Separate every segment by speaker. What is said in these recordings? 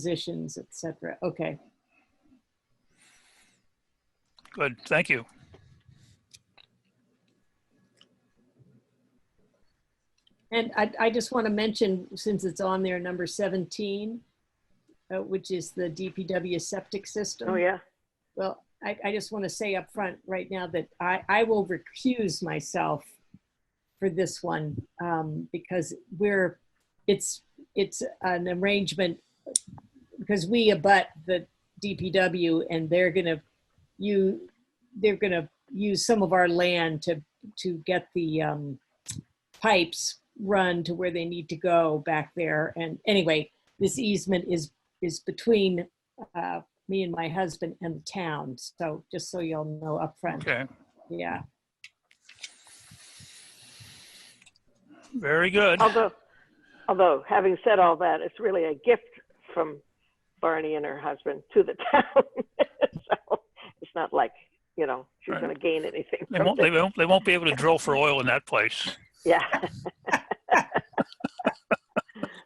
Speaker 1: positions, et cetera. Okay.
Speaker 2: Good, thank you.
Speaker 1: And I, I just want to mention, since it's on there, number 17, uh, which is the DPW septic system.
Speaker 3: Oh, yeah.
Speaker 1: Well, I, I just want to say up front right now that I, I will recuse myself for this one um, because we're, it's, it's an arrangement because we abut the DPW and they're gonna, you, they're gonna use some of our land to, to get the um, pipes run to where they need to go back there. And anyway, this easement is, is between uh, me and my husband and the town. So just so y'all know upfront,
Speaker 2: Okay,
Speaker 1: yeah.
Speaker 2: very good.
Speaker 3: Although, although, having said all that, it's really a gift from Barney and her husband to the town. so it's not like, you know, she's
Speaker 2: Right.
Speaker 3: going to gain anything.
Speaker 2: They
Speaker 3: from
Speaker 2: won't, they
Speaker 3: this.
Speaker 2: won't, they won't be able to drill for oil in that place.
Speaker 3: Yeah.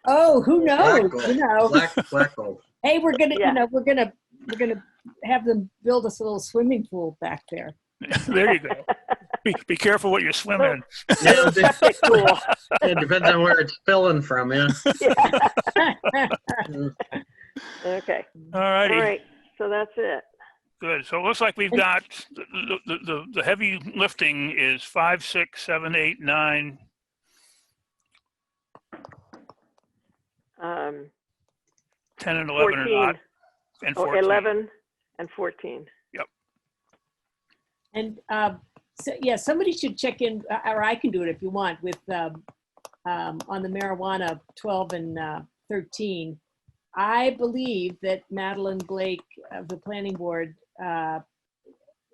Speaker 1: Oh, who knows,
Speaker 4: Black gold.
Speaker 1: you know?
Speaker 4: Black, black gold.
Speaker 1: Hey, we're gonna,
Speaker 3: Yeah.
Speaker 1: you know, we're gonna, we're gonna have them build us a little swimming pool back there.
Speaker 2: There you go. Be, be careful what you're swimming in.
Speaker 4: Yeah, it de-
Speaker 3: Septic pool.
Speaker 4: it depends on where it's spilling from, yeah.
Speaker 3: Yeah.
Speaker 4: Mm.
Speaker 3: Okay.
Speaker 2: All
Speaker 3: All
Speaker 2: righty.
Speaker 3: right. So that's it.
Speaker 2: Good. So it looks like we've got, the, the- the, the heavy lifting is five, six, seven, eight, nine.
Speaker 3: Um,
Speaker 2: 10 and 11 are
Speaker 3: 14,
Speaker 2: not, and
Speaker 3: oh,
Speaker 2: 14.
Speaker 3: 11 and 14.
Speaker 1: And, um, so, yeah, somebody should check in, uh, or I can do it if you want, with, um, um, on the marijuana twelve and, uh, thirteen. I believe that Madeline Blake of the planning board, uh,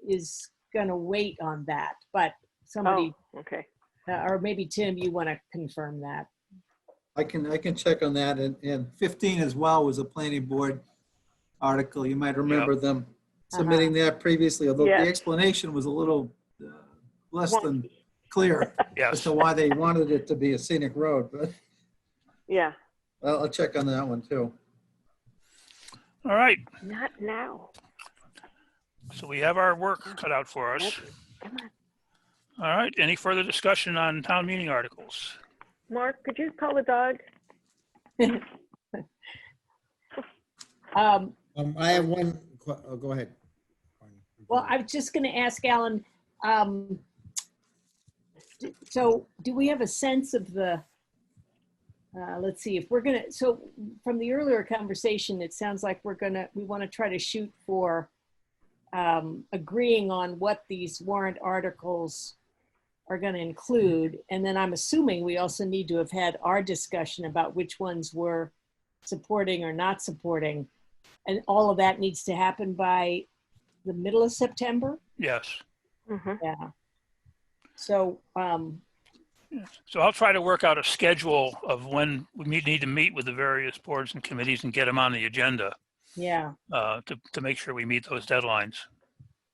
Speaker 1: is gonna wait on that, but somebody
Speaker 3: Oh, okay.
Speaker 1: Uh, Or maybe Tim, you want to confirm that.
Speaker 5: I can, I can check on that. And, and 15 as well was a planning board article. You might remember them submitting that previously, although the
Speaker 3: Uh-huh. Yes.
Speaker 5: explanation was a little uh, less
Speaker 3: Wonky.
Speaker 5: than clear as
Speaker 2: Yes.
Speaker 5: to why they wanted it to be a scenic road, but
Speaker 3: Yeah.
Speaker 5: I'll, I'll check on that one too.
Speaker 2: All right.
Speaker 3: Not now.
Speaker 2: So we have our work cut out for us.
Speaker 3: Come on.
Speaker 2: All right. Any further discussion on town meeting articles?
Speaker 3: Mark, could you call the dog?
Speaker 1: Um,
Speaker 6: Um, I have one, que- oh, go ahead.
Speaker 1: well, I was just going to ask Alan. Um, d- so, do we have a sense of the? Uh, let's see if we're going to. So, from the earlier conversation, it sounds like we're going to. We want to try to shoot for um, agreeing on what these warrant articles are going to include, and then I'm assuming we also need to have had our discussion about which ones we're supporting or not supporting, and all of that needs to happen by the middle of September.
Speaker 2: Yes.
Speaker 3: Mm-hmm.
Speaker 1: Yeah. So, um,
Speaker 2: So I'll try to work out a schedule of when we meet- need to meet with the various boards and committees and get them on the agenda
Speaker 1: yeah,
Speaker 2: uh, to, to make sure we meet those deadlines.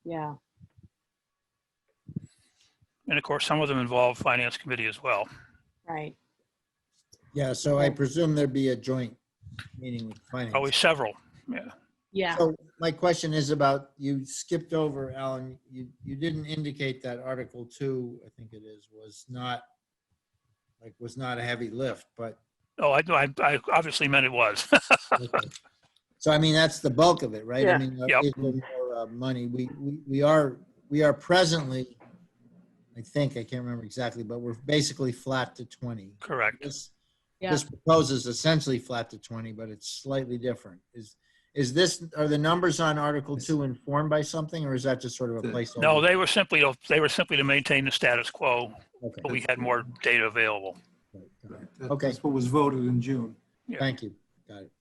Speaker 1: yeah,
Speaker 2: And of course, some of them involve finance committee as well.
Speaker 1: right.
Speaker 6: Yeah, so I presume there'd be a joint meeting with finance.
Speaker 2: Always several.
Speaker 1: Yeah.
Speaker 6: So my question is about, you skipped over, Alan, you, you didn't indicate that Article Two, I think it is, was not, like, was not a heavy lift, but,
Speaker 2: Oh, I, I, I obviously meant it was.
Speaker 6: so I mean, that's the bulk of it, right?
Speaker 3: Yeah.
Speaker 6: I mean, uh,
Speaker 2: Yep.
Speaker 6: is there more uh, money, we, we, we are, we are presently, I think, I can't remember exactly, but we're basically flat to twenty.
Speaker 2: Correct.
Speaker 6: This,
Speaker 1: Yeah.
Speaker 6: this proposes essentially flat to 20, but it's slightly different. Is, is this, are the numbers on Article 2 informed by something, or is that just sort of a
Speaker 5: No,
Speaker 6: placeholder?
Speaker 2: No, they were simply, to- they were simply to maintain the status quo,
Speaker 6: Okay,
Speaker 2: but we had more data available.
Speaker 6: got it.
Speaker 5: That-
Speaker 6: Okay.
Speaker 5: That's what was voted in June.
Speaker 6: Thank you. Got it.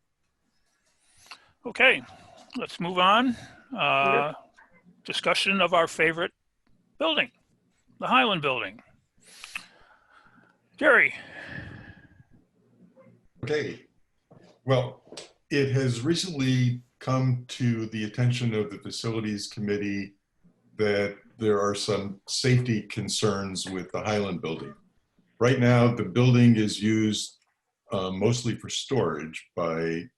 Speaker 2: Okay, let's move on. Uh, Discussion of our favorite building, the Highland Building. Jerry,
Speaker 7: Okay. Well, it has recently come to the attention of the facilities committee that there are some safety concerns with the Highland building. Right now, the building is used uh, mostly for storage by